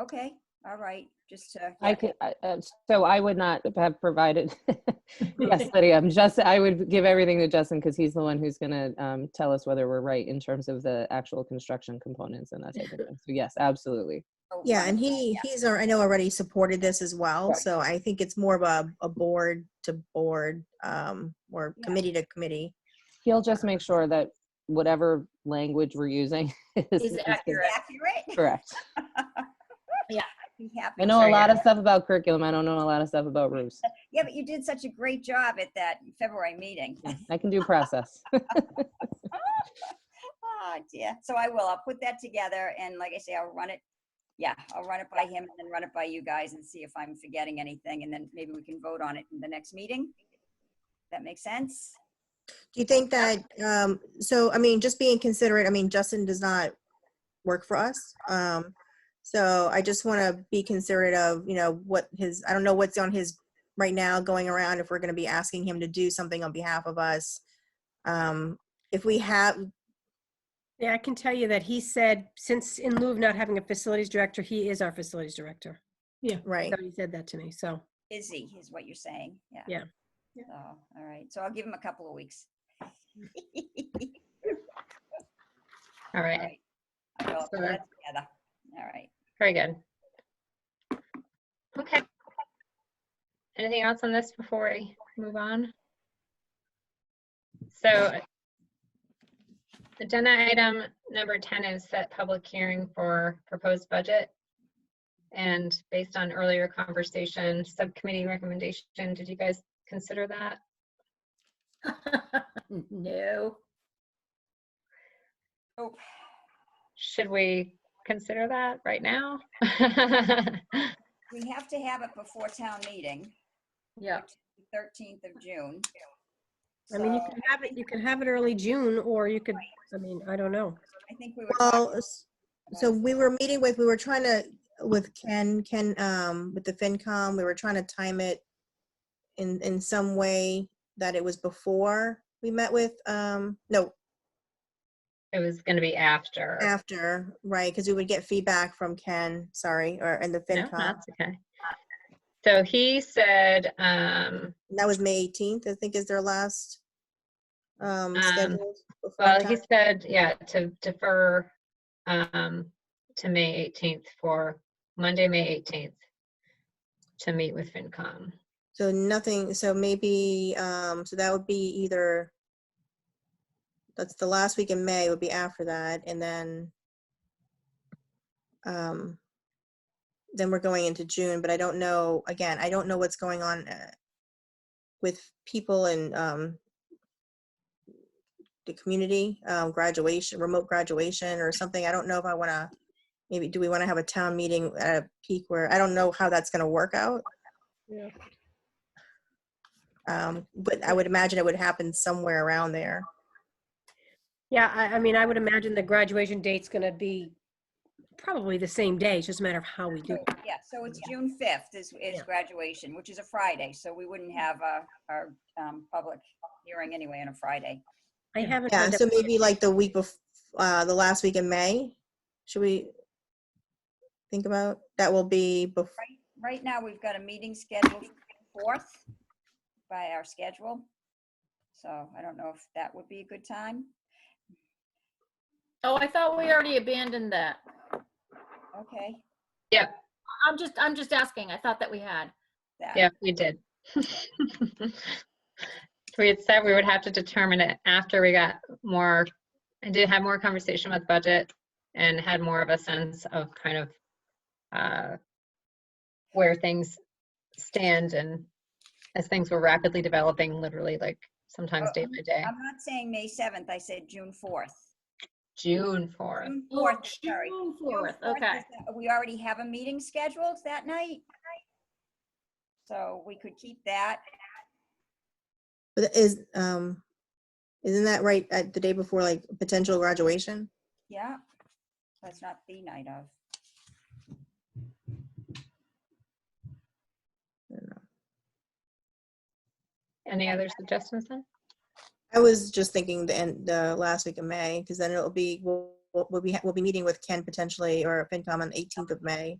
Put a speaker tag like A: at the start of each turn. A: Okay, all right, just to.
B: I could, I- uh, so I would not have provided, yes, Lydia, I'm just, I would give everything to Justin because he's the one who's gonna um, tell us whether we're right in terms of the actual construction components and that type of thing. So yes, absolutely.
A: so
C: Yeah,
A: one-
C: and he, he's, al- I know already supported this as well,
B: Right.
C: so I think it's more of a, a board to board, um, or
A: Yeah.
C: committee to committee.
B: He'll just make sure that whatever language we're using is.
D: Is accurate.
A: Accurate.
B: Correct.
A: Be happy.
B: I know a
D: Sorry,
B: lot of stuff about curriculum. I don't know a lot of stuff about roofs.
A: Yeah, but you did such a great job at that February meeting.
B: Yeah, I can do process.
A: Oh dear. So I will, I'll put that together and like I say, I'll run it. Yeah, I'll run it by him and then run it by you guys and see if I'm forgetting anything and then maybe we can vote on it in the next meeting. That makes sense?
C: Do you think that, um, so, I mean, just being considerate, I mean, Justin does not work for us. Um, so I just want to be considerate of, you know, what his, I don't know what's on his right now going around, if we're going to be asking him to do something on behalf of us. Um, if we have,
E: Yeah, I can tell you that he said, since in lieu of not having a facilities director, he is our facilities director.
C: right,
E: So he said that to me, so.
A: Busy is what you're saying. Yeah.
E: Yeah. Yeah.
A: So, all right. So I'll give him a couple of weeks.
D: All
A: All
D: right,
A: right. I will put
D: Sure.
A: that together. All right.
D: very good. Okay. Anything else on this before we move on? So agenda item number 10 is set public hearing for proposed budget. And based on earlier conversation, subcommittee recommendation, did you guys consider that?
E: No.
A: Oh,
D: Should we consider that right now?
A: we have to have it before town meeting,
D: Yeah.
A: thirteenth of June.
E: I mean, you
A: So-
E: can have it, you can have it early June, or you could, I mean, I don't know.
A: I think we were.
C: well,
A: talking
C: s- so we were meeting with, we were trying to, with Ken, Ken, um, with the FinCom, we were trying to time it in, in some way that it was before we met with, um, no,
D: It was going to be after.
C: After, right, because we would get feedback from Ken, sorry, or, and the
D: No,
C: FinCom.
D: that's okay. So he said, um,
C: And That was May 18th, I think is their last, um,
D: Um,
C: scheduled. before
D: well,
C: town-
D: he said, yeah, to defer, um, to May 18th for Monday, May 18th to meet with FinCom.
C: So nothing, so maybe, um, so that would be either, that's the last week in May would be after that, and then, um, then we're going into June, but I don't know, again, I don't know what's going on uh, with people and, um, the community, um, graduation, remote graduation or something. I don't know if I want to, maybe, do we want to have a town meeting at a peak where, I don't know how that's going to work out.
E: Yeah.
C: Um, but I would imagine it would happen somewhere around there.
E: Yeah, I, I mean, I would imagine the graduation date's gonna be probably the same day, it's just a matter of how we
A: So,
E: do. it.
A: Yeah, so it's June fifth is, is
E: Yeah.
A: graduation, which is a Friday, so we wouldn't have uh our, um, public hearing anyway on a Friday.
E: I haven't.
C: Yeah,
E: heard
C: so
E: that-
C: maybe like the week bef, uh, the last week in May, should we think about, that will be bef,
A: Right, right now, we've got a meeting scheduled for the fourth by our schedule. So I don't know if that would be a good time.
F: Oh, I thought we already abandoned that.
A: Okay,
F: I'm just, I'm just asking. I thought that we had.
A: that,
D: Yeah, we did. We had said we would have to determine it after we got more, I did have more conversation with budget and had more of a sense of kind of uh, where things stand and as things were rapidly developing, literally like sometimes day by day.
A: Uh, I'm not saying May seventh, I said June fourth.
D: June 4th.
A: June
F: Oh,
A: fourth, sorry.
F: June
A: June
F: fourth,
A: 4th
F: okay.
A: is that- We already have a meeting scheduled that night. So we could keep that.
C: but is, um, isn't that right at the day before, like potential graduation?
A: Yeah, that's not the night of.
D: Any other suggestions then?
C: I was just thinking the end, the last week of May, because then it'll be, we'll, we'll we'll be, we'll be meeting with Ken potentially or FinCom on the 18th of May.